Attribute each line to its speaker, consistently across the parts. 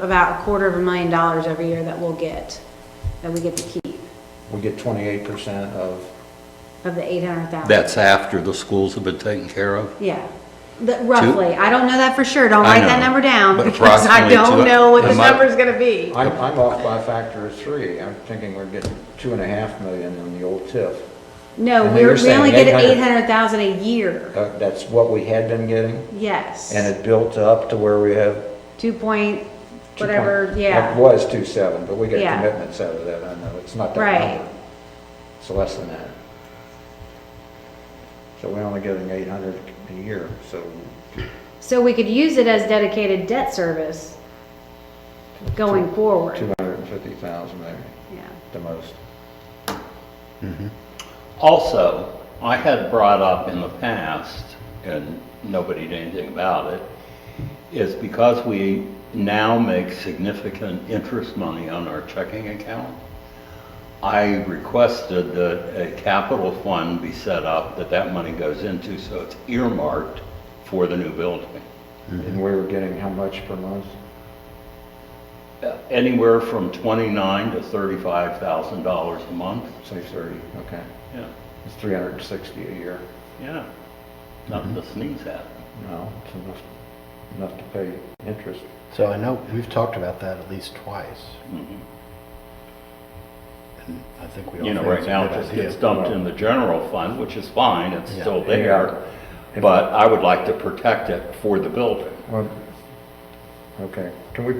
Speaker 1: about a quarter of a million dollars every year that we'll get, that we get to keep,
Speaker 2: We get twenty-eight percent of,
Speaker 1: of the eight hundred thousand.
Speaker 3: That's after the schools have been taken care of?
Speaker 1: Yeah, The- roughly. I don't know that for sure. Don't
Speaker 3: I
Speaker 1: write that
Speaker 3: know,
Speaker 1: number down.
Speaker 3: but
Speaker 1: because I
Speaker 3: approximately
Speaker 1: don't
Speaker 3: two-
Speaker 1: know what the
Speaker 3: am I-
Speaker 1: number's gonna be.
Speaker 2: I'm, I'm off by a factor of three. I'm thinking we're getting two and a half million on the old TIF.
Speaker 1: No,
Speaker 2: And then
Speaker 1: we're,
Speaker 2: you're
Speaker 1: we only
Speaker 2: saying
Speaker 1: get eight
Speaker 2: 800.
Speaker 1: hundred thousand a year.
Speaker 2: Uh, That's what we had been getting,
Speaker 1: Yes.
Speaker 2: and it built up to where we have.
Speaker 1: Two point,
Speaker 2: two point-
Speaker 1: whatever,
Speaker 2: It
Speaker 1: yeah.
Speaker 2: was two seven, but we got
Speaker 1: Yeah.
Speaker 2: commitments out of that, I know, it's not that
Speaker 1: Right.
Speaker 2: number. It's less than that. So we're only getting eight hundred a year, so
Speaker 1: So we could use it as dedicated debt service going forward.
Speaker 2: two hundred and fifty thousand there,
Speaker 1: Yeah.
Speaker 2: the most.
Speaker 4: Also, I had brought up in the past, and nobody did anything about it, is because we now make significant interest money on our checking account, I requested that a capital fund be set up that that money goes into, so it's earmarked for the new building.
Speaker 2: And we were getting how much per month?
Speaker 4: Uh, Anywhere from twenty-nine to thirty-five thousand dollars a month.
Speaker 2: Say thirty, okay.
Speaker 4: Yeah,
Speaker 2: It's three hundred and sixty a year.
Speaker 4: yeah. Nothing to sneeze at.
Speaker 2: No, it's enough, enough to pay interest.
Speaker 5: So I know we've talked about that at least twice. And I think we all.
Speaker 4: You know,
Speaker 5: think
Speaker 4: right
Speaker 5: it's a
Speaker 4: now,
Speaker 5: good
Speaker 4: it
Speaker 5: idea.
Speaker 4: gets dumped in the general fund, which is fine, it's
Speaker 5: Yeah.
Speaker 4: still
Speaker 2: Yeah.
Speaker 4: there, but I would like to protect it for the building.
Speaker 2: Well, okay, can we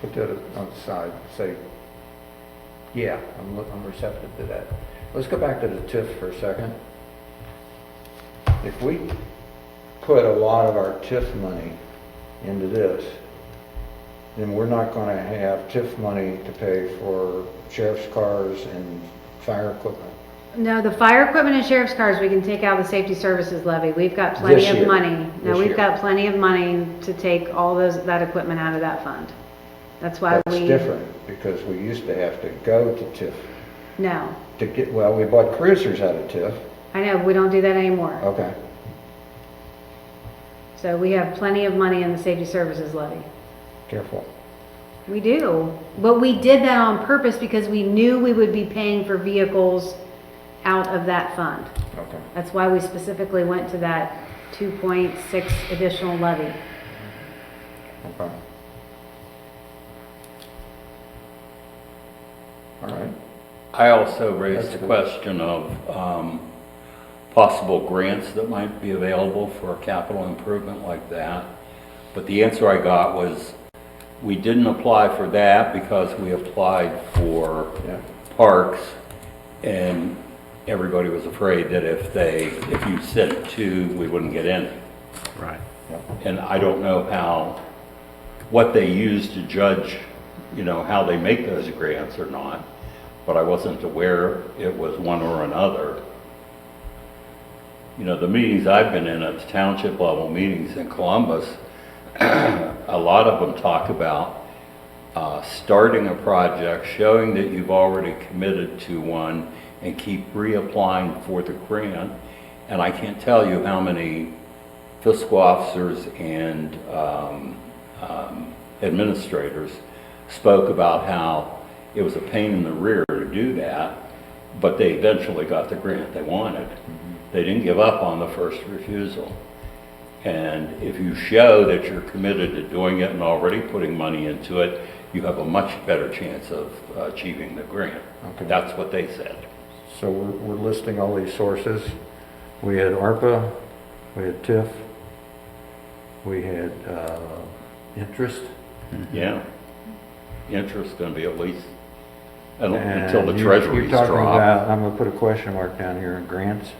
Speaker 2: put that on the side, say, yeah, I'm, look- I'm receptive to that. Let's go back to the TIF for a second. If we put a lot of our TIF money into this, then we're not gonna have TIF money to pay for sheriff's cars and fire equipment.
Speaker 1: No, the fire equipment and sheriff's cars, we can take out of the safety services levy. We've got plenty
Speaker 2: This
Speaker 1: of
Speaker 2: year.
Speaker 1: money. No,
Speaker 2: This
Speaker 1: we've
Speaker 2: year.
Speaker 1: got plenty of money to take all those, that equipment out of that fund. That's why
Speaker 2: That's
Speaker 1: we.
Speaker 2: different, because we used to have to go to TIF
Speaker 1: No,
Speaker 2: to get, well, we bought cruisers out of TIF.
Speaker 1: I know, we don't do that anymore.
Speaker 2: Okay,
Speaker 1: So we have plenty of money in the safety services levy.
Speaker 2: careful.
Speaker 1: We do, but we did that on purpose because we knew we would be paying for vehicles out of that fund.
Speaker 2: Okay.
Speaker 1: That's why we specifically went to that 2.6 additional levy.
Speaker 2: Okay. All right.
Speaker 4: I also raised
Speaker 2: That's
Speaker 4: the
Speaker 2: good.
Speaker 4: question of um, possible grants that might be available for a capital improvement like that. But the answer I got was, we didn't apply for that because we applied for
Speaker 2: Yeah.
Speaker 4: parks, and everybody was afraid that if they, if you said two, we wouldn't get in.
Speaker 5: Right.
Speaker 4: And I don't know how, what they use to judge, you know, how they make those grants or not, but I wasn't aware it was one or another. You know, the meetings I've been in, at the township level meetings in Columbus, a lot of them talk about uh, starting a project, showing that you've already committed to one, and keep reapplying for the grant. And I can't tell you how many fiscal officers and um, um, administrators spoke about how it was a pain in the rear to do that, but they eventually got the grant they wanted.
Speaker 2: Mm-hmm.
Speaker 4: They didn't give up on the first refusal. And if you show that you're committed to doing it and already putting money into it, you have a much better chance of achieving the grant.
Speaker 2: Okay.
Speaker 4: That's what they said.
Speaker 2: So we're, we're listing all these sources. We had ARPA, we had TIF, we had, uh, interest. Mm-hmm.
Speaker 4: Yeah. Interest's gonna be at least, un-
Speaker 2: and
Speaker 4: until the
Speaker 2: you-
Speaker 4: treasuries
Speaker 2: You're talking
Speaker 4: drop.
Speaker 2: about, I'm gonna put a question mark down here, grants.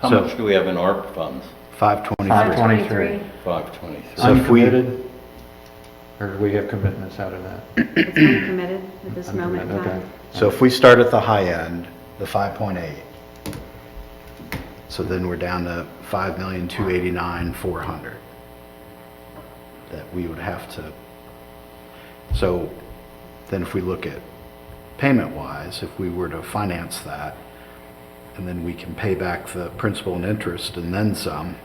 Speaker 4: How
Speaker 5: So-
Speaker 4: much do we have in ARP funds?
Speaker 5: Five
Speaker 2: Five
Speaker 5: Uh, twenty-three.
Speaker 2: twenty.
Speaker 1: 523.
Speaker 4: 523.
Speaker 5: So if we-
Speaker 2: Uncommitted? Or do we have commitments out of that?
Speaker 1: It's uncommitted at this moment in
Speaker 2: Uncommitted,
Speaker 1: time.
Speaker 5: So if we start at the high end, the five point eight, so then we're down to five million, two eighty-nine, four hundred. That we would have to, so then if we look at payment-wise, if we were to finance that, and then we can pay back the principal and interest and then some,